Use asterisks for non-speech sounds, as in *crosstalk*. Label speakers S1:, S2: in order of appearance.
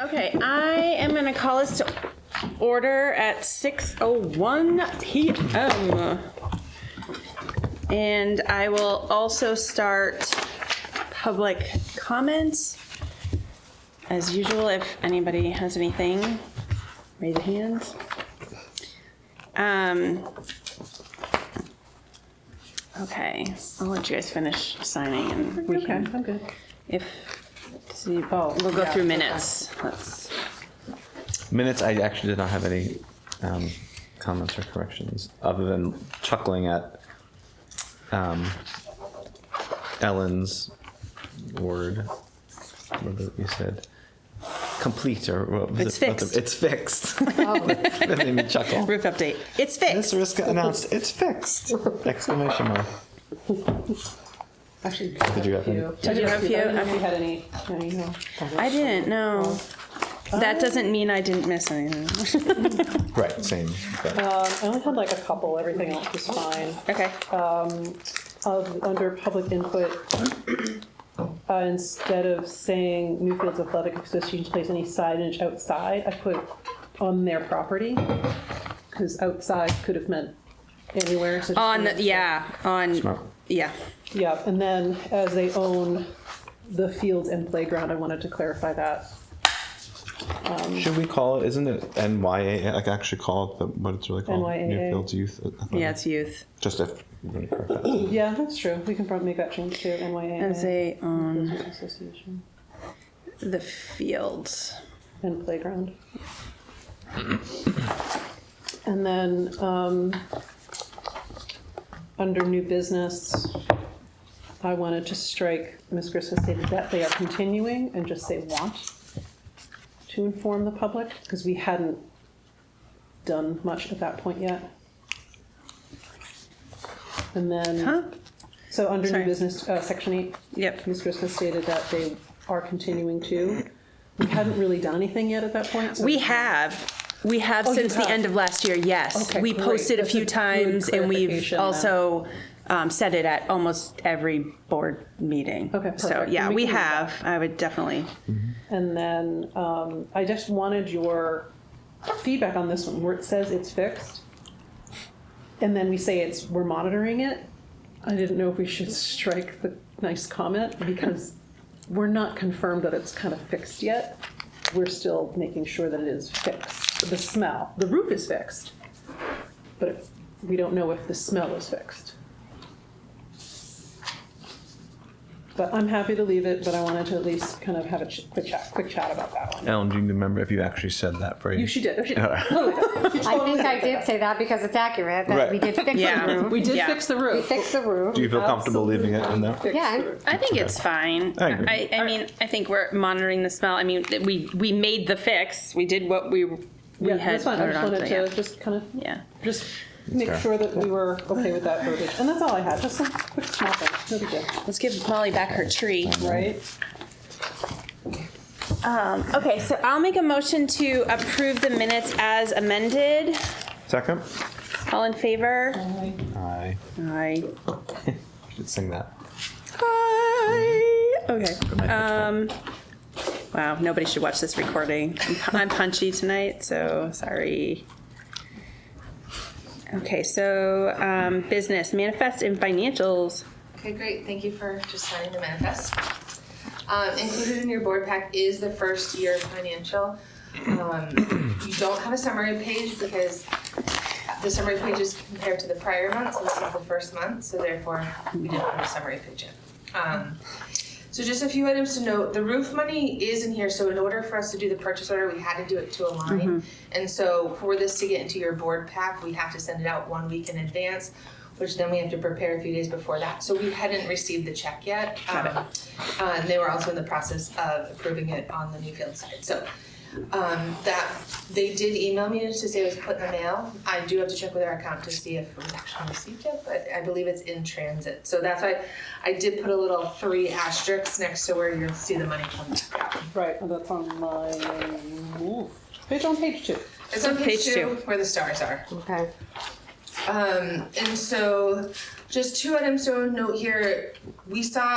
S1: Okay, I am going to call us to order at 6:01 PM. And I will also start public comments. As usual, if anybody has anything, raise your hands. Um, Okay, I'll let you guys finish signing and we
S2: Okay,
S1: can
S2: I'm good.
S1: if, see, oh, we'll go through minutes. Let's,
S3: Minutes, I actually did not have any um, comments or corrections, other than chuckling at um, Ellen's word, whatever you said, complete or what was
S1: It's
S3: it? What the-
S1: fixed. Oh. *laughs*
S3: It's fixed. *laughs* That made me chuckle.
S1: roof update. It's fixed.
S3: This risk announced, it's fixed! Exclamation mark.
S2: Actually,
S3: Did you have any?
S1: Did you have a few?
S2: you had any, any, no.
S1: I didn't, no. That doesn't mean I didn't miss anything.
S3: Right, same. but-
S2: Um, I only had like a couple, everything else was fine.
S1: Okay.
S2: Of, under public input, uh, instead of saying Newfields Athletic Association plays any signage outside, I put on their property. Cause outside could have meant anywhere. so just
S1: On,
S2: wanted to-
S1: yeah, on,
S3: Smart.
S1: yeah.
S2: Yeah, and then as they own the fields and playground, I wanted to clarify that.
S3: Should we call it, isn't it NYA, like actually call it the- what it's really called?
S2: NYAA.
S3: Newfields Youth. Athletic?
S1: Yeah, it's youth.
S3: Just if, you want to correct that.
S2: Yeah, that's true. We can probably make that change to NYAA.
S1: As um, they own
S2: Business Association
S1: the fields.
S2: and playground. And then, um, under new business, I wanted to strike, Ms. Chris has stated that they are continuing and just say want to inform the public, because we hadn't done much at that point yet. And
S1: Huh?
S2: then, so under
S1: Sorry.
S2: new business, uh, section eight,
S1: Yep.
S2: Ms. Chris has stated that they are continuing to. We hadn't really done anything yet at that point. so-
S1: We have, we have
S2: Oh, you
S1: since the
S2: have.
S1: end of last year, yes.
S2: Okay,
S1: We
S2: great.
S1: posted a
S2: That's
S1: few
S2: a good
S1: times and we've
S2: clarification then.
S1: also um, said it at almost every board meeting.
S2: Okay,
S1: So,
S2: perfect.
S1: yeah,
S2: We
S1: we
S2: can do
S1: have. I would definitely,
S2: And then um, I just wanted your feedback on this one, where it says it's fixed, and then we say it's, we're monitoring it. I didn't know if we should strike the nice comment, because we're not confirmed that it's kind of fixed yet. We're still making sure that it is fixed. The smell, the roof is fixed, but we don't know if the smell is fixed. But I'm happy to leave it, but I wanted to at least kind of have a ch- quick chat, quick chat about that one.
S3: Ellen, do you remember if you actually said that phrase?
S2: You, she did, she did.
S4: I think I did say that because it's accurate, that we
S3: Right.
S4: did fix
S1: Yeah.
S4: the roof.
S2: We did
S1: Yeah.
S2: fix the
S4: We
S2: roof.
S4: fixed the roof.
S3: do you feel comfortable leaving it in there?
S2: Fixed
S4: Yeah,
S2: the
S4: I'm-
S2: roof.
S1: I think it's fine.
S3: I agree.
S1: I, I mean, I think we're monitoring the smell. I mean, th- we, we made the fix. We did what we, we
S2: Yeah,
S1: had
S2: that's fine, I
S1: voted
S2: just
S1: on.
S2: wanted
S1: so,
S2: to just kind of,
S1: Yeah.
S2: just make
S3: fair.
S2: sure that we were okay with that verbiage. And that's all I had, just some quick small things, no big deal,
S1: Let's give Molly back her tree.
S2: right?
S1: Okay, so I'll make a motion to approve the minutes as amended.
S3: Second?
S1: All in favor?
S3: *laughs* I
S1: Aye.
S3: should sing that.
S1: Aye. Okay.
S3: Good night,
S1: Um, wow, nobody should watch this recording. I'm pu- I'm punchy tonight, so sorry. Okay, so um, business, manifest, and financials.
S5: Okay, great, thank you for just signing the manifest. Um, included in your board pack is the first year financial. Um, you don't have a summary page because the summary page is compared to the prior month, so this is the first month, so therefore we didn't have a summary page yet. Um, so just a few items to note, the roof money is in here, so in order for us to do the purchase order, we had to do it to a line. And so for this to get into your board pack, we have to send it out one week in advance, which then we have to prepare a few days before that. So we hadn't received the check yet. Um, uh, and they were also in the process of approving it on the Newfield side, so. Um, that, they did email me to say it was put in the mail. I do have to check with our account to see if we've actually received it, but I believe it's in transit. So that's why I did put a little three asterisks next to where you'll see the money come back out.
S2: Right, and that's on my, page on page two.
S5: It's on page
S1: Page
S5: two
S1: two.
S5: where the stars are.
S4: Okay.
S5: Um, and so just two items to note here. We saw